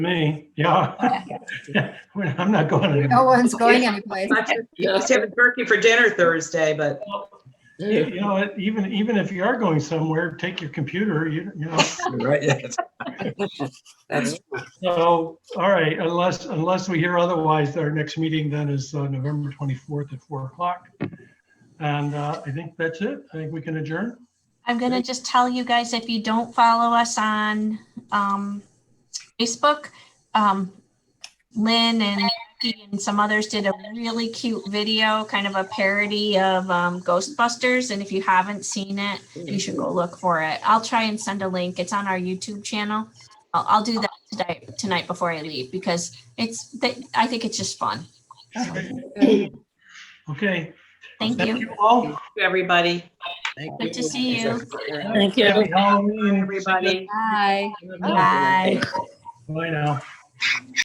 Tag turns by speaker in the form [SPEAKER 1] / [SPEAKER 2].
[SPEAKER 1] Me, yeah. Well, I'm not going to.
[SPEAKER 2] No one's going anyplace.
[SPEAKER 3] You know, it's having turkey for dinner Thursday, but
[SPEAKER 1] You know, it- even, even if you are going somewhere, take your computer, you, you know.
[SPEAKER 4] Right, yes. That's,
[SPEAKER 1] So, all right, unless, unless we hear otherwise, our next meeting then is uh, November 24th at 4 o'clock. And uh, I think that's it. I think we can adjourn.
[SPEAKER 5] I'm gonna just tell you guys, if you don't follow us on um, Facebook, um, Lynn and Becky and some others did a really cute video, kind of a parody of um, Ghostbusters. And if you haven't seen it, you should go look for it. I'll try and send a link. It's on our YouTube channel. I'll, I'll do that today, tonight before I leave because it's, they- I think it's just fun.
[SPEAKER 1] Okay.
[SPEAKER 5] Thank
[SPEAKER 1] Thank
[SPEAKER 5] you.
[SPEAKER 1] you all.
[SPEAKER 3] everybody,
[SPEAKER 5] Good to see you.
[SPEAKER 6] Thank you.
[SPEAKER 1] Happy Halloween.
[SPEAKER 3] everybody.
[SPEAKER 2] Bye.
[SPEAKER 5] Bye.
[SPEAKER 1] Bye now.